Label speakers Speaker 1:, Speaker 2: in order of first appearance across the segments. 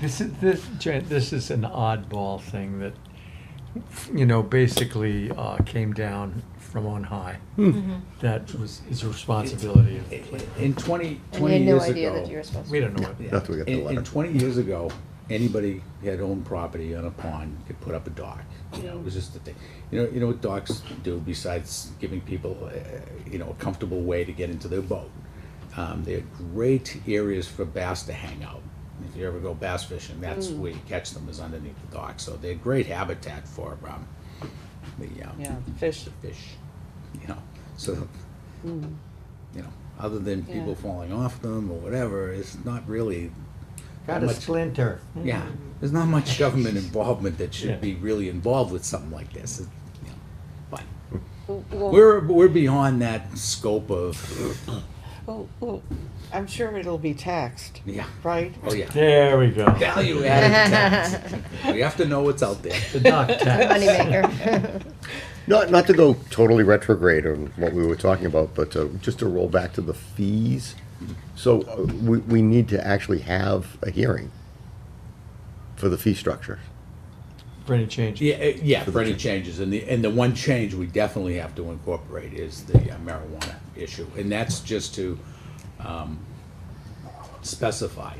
Speaker 1: This is, this, Jan- this is an oddball thing that, you know, basically, uh, came down from on high.
Speaker 2: Hmm.
Speaker 3: Mm-hmm.
Speaker 1: That was, is a responsibility of,
Speaker 4: In 20
Speaker 5: And you
Speaker 4: 20
Speaker 5: had no
Speaker 4: years
Speaker 5: idea that
Speaker 4: ago-
Speaker 5: you were supposed to.
Speaker 1: we don't know what.
Speaker 4: Yeah.
Speaker 6: That's where we got the
Speaker 4: In- In
Speaker 6: letter.
Speaker 4: twenty years ago, anybody who had owned property on a pond could put up a dock. You know, it was just a thing. You know, you know what docks do besides giving people, uh, you know, a comfortable way to get into their boat? Um, they're great areas for bass to hang out. If you ever go bass fishing, that's
Speaker 5: Mm.
Speaker 4: where you catch them is underneath the dock. So they're great habitat for, um, the, um,
Speaker 3: Yeah, fish.
Speaker 4: fish, you know, so, you know, other than people
Speaker 3: Yeah.
Speaker 4: falling off them or whatever, it's not really. that much-
Speaker 1: splinter.
Speaker 4: Yeah, there's not much government involvement that
Speaker 1: Yeah.
Speaker 4: should be really involved with something like this, it- you know, but
Speaker 3: Well,
Speaker 4: we're, we're beyond that scope of,
Speaker 3: well, well, I'm sure it'll be taxed,
Speaker 4: yeah,
Speaker 3: right?
Speaker 4: oh yeah,
Speaker 1: There we go.
Speaker 4: value added tax. We have to know what's out there.
Speaker 1: The dock tax.
Speaker 5: Moneymaker.
Speaker 6: Not, not to go totally retrograde on what we were talking about, but uh, just to roll back to the fees. So uh, we, we need to actually have a hearing for the fee structure.
Speaker 1: For any change.
Speaker 4: Yeah, uh, yeah, for any changes, and the, and the one change we definitely have to incorporate is the uh, marijuana issue, and that's just to, um, specify,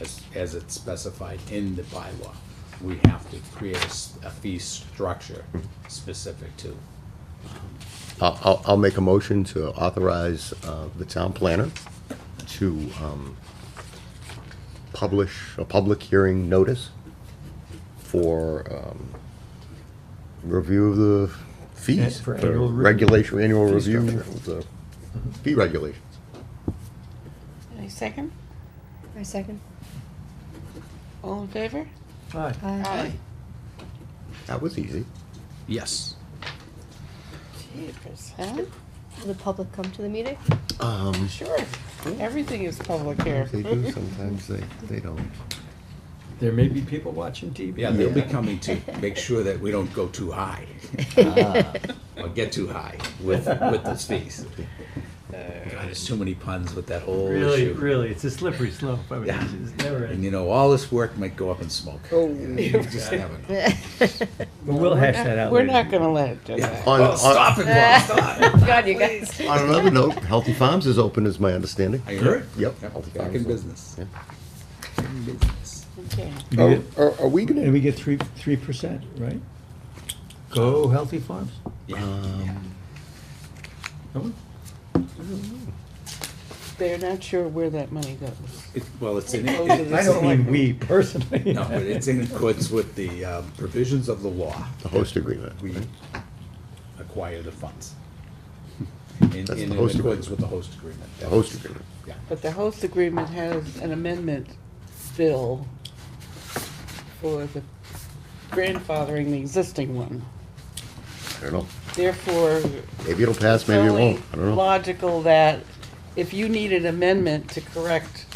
Speaker 4: as, as it's specified in the bylaw, we have to create a, s- a fee structure specific to,
Speaker 6: I'll, I'll, I'll make a motion to authorize uh, the town planner to um, publish a public hearing notice for um, review of the fees.
Speaker 1: For annual re-
Speaker 6: Regulation, annual
Speaker 1: fee
Speaker 6: review of
Speaker 1: structure.
Speaker 6: the fee regulations.
Speaker 3: Any second?
Speaker 5: My second.
Speaker 3: All in favor?
Speaker 1: Hi.
Speaker 5: Aye.
Speaker 6: That was easy.
Speaker 4: yes.
Speaker 3: Jeepers, huh?
Speaker 5: Will the public come to the meeting?
Speaker 6: Um,
Speaker 3: Sure. Everything is public here.
Speaker 6: They do, sometimes they, they don't.
Speaker 1: There may be people watching TV.
Speaker 4: Yeah, they'll be coming to make sure that we don't go too high, or get too high with, with those fees. God, there's too many puns with that whole issue.
Speaker 2: Really, really, it's a slippery slope. I mean,
Speaker 4: Yeah.
Speaker 2: it's it's never
Speaker 4: And
Speaker 2: ending.
Speaker 4: you know, all this work might go up in smoke. Oh. You just never know.
Speaker 2: But we'll hash that out
Speaker 3: We're
Speaker 2: later.
Speaker 3: not gonna let it do that.
Speaker 6: On,
Speaker 4: Oh,
Speaker 6: on,
Speaker 4: stop it, Bob, stop.
Speaker 5: God, you guys.
Speaker 6: on another note, Healthy Farms is open, is my understanding.
Speaker 4: I heard.
Speaker 6: Yep.
Speaker 4: Back in business.
Speaker 6: Yeah.
Speaker 4: Back in business.
Speaker 3: Okay.
Speaker 6: Are,
Speaker 3: Oh.
Speaker 6: are- are we
Speaker 2: And
Speaker 6: gonna,
Speaker 2: we get three, three percent, right?
Speaker 1: Go Healthy Farms.
Speaker 4: Yeah, yeah.
Speaker 3: They're not sure where that money goes.
Speaker 4: It- Well, it's in,
Speaker 3: Those are
Speaker 4: it-
Speaker 3: the
Speaker 2: I don't mean
Speaker 3: select-
Speaker 2: we personally.
Speaker 4: no, but it's in accordance with the um, provisions of the law.
Speaker 6: the host agreement?
Speaker 4: We
Speaker 6: right?
Speaker 4: acquire the funds. In,
Speaker 6: That's
Speaker 4: in
Speaker 6: the host
Speaker 4: accordance
Speaker 6: agreement.
Speaker 4: with the host agreement.
Speaker 6: The host agreement.
Speaker 4: Yeah.
Speaker 3: But the host agreement has an amendment bill for the grandfathering the existing one.
Speaker 6: I don't know.
Speaker 3: Therefore,
Speaker 6: Maybe it'll pass, maybe it
Speaker 3: It's
Speaker 6: won't.
Speaker 3: only
Speaker 6: I don't know.
Speaker 3: Logical that if you need an amendment to correct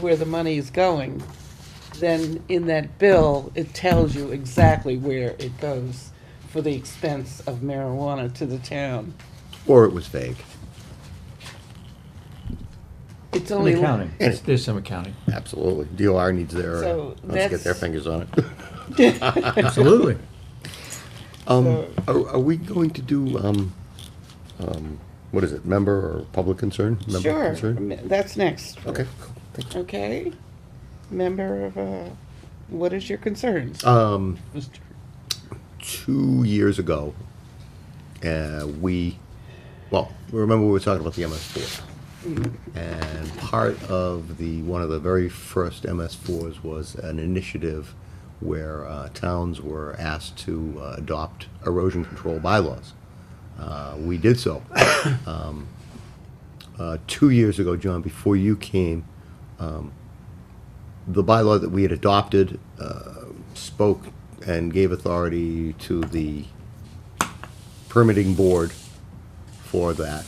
Speaker 3: where the money is going, then in that bill, it tells you exactly where it goes for the expense of marijuana to the town.
Speaker 6: Or it was vague.
Speaker 3: It's
Speaker 2: An
Speaker 3: only.
Speaker 2: accounting.
Speaker 1: It's- There's some accounting.
Speaker 6: Absolutely. DOR needs their,
Speaker 3: So
Speaker 6: uh, let's get their
Speaker 3: that's-
Speaker 6: fingers on it.
Speaker 2: Absolutely.
Speaker 6: Um, are, are we going to do, um, um, what is it, member or public concern? Member
Speaker 3: Sure,
Speaker 6: concern?
Speaker 3: that's next,
Speaker 6: Okay, cool. Thank
Speaker 3: okay? Member of, uh, what is your concerns?
Speaker 6: you. Um,
Speaker 3: Mr.
Speaker 6: two years ago, uh, we, well, remember we were talking about the MS4. And part of the, one of the very first MS4s was an initiative where uh, towns were asked to uh, adopt erosion control bylaws. Uh, We did so. Um, uh, Two years ago, John, before you came, the bylaw that we had adopted uh, spoke and gave authority to the permitting board for that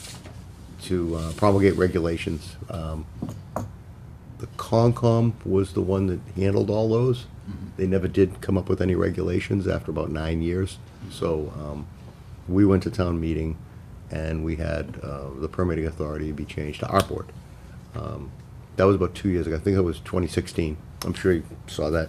Speaker 6: to uh, promulgate regulations. Um, The Concom was the one that handled all those. They never did come up with any regulations after about nine years. So um, we went to town meeting and we had uh, the permitting authority be changed to our board That was about two years ago. I think it was 2016. I'm sure you saw that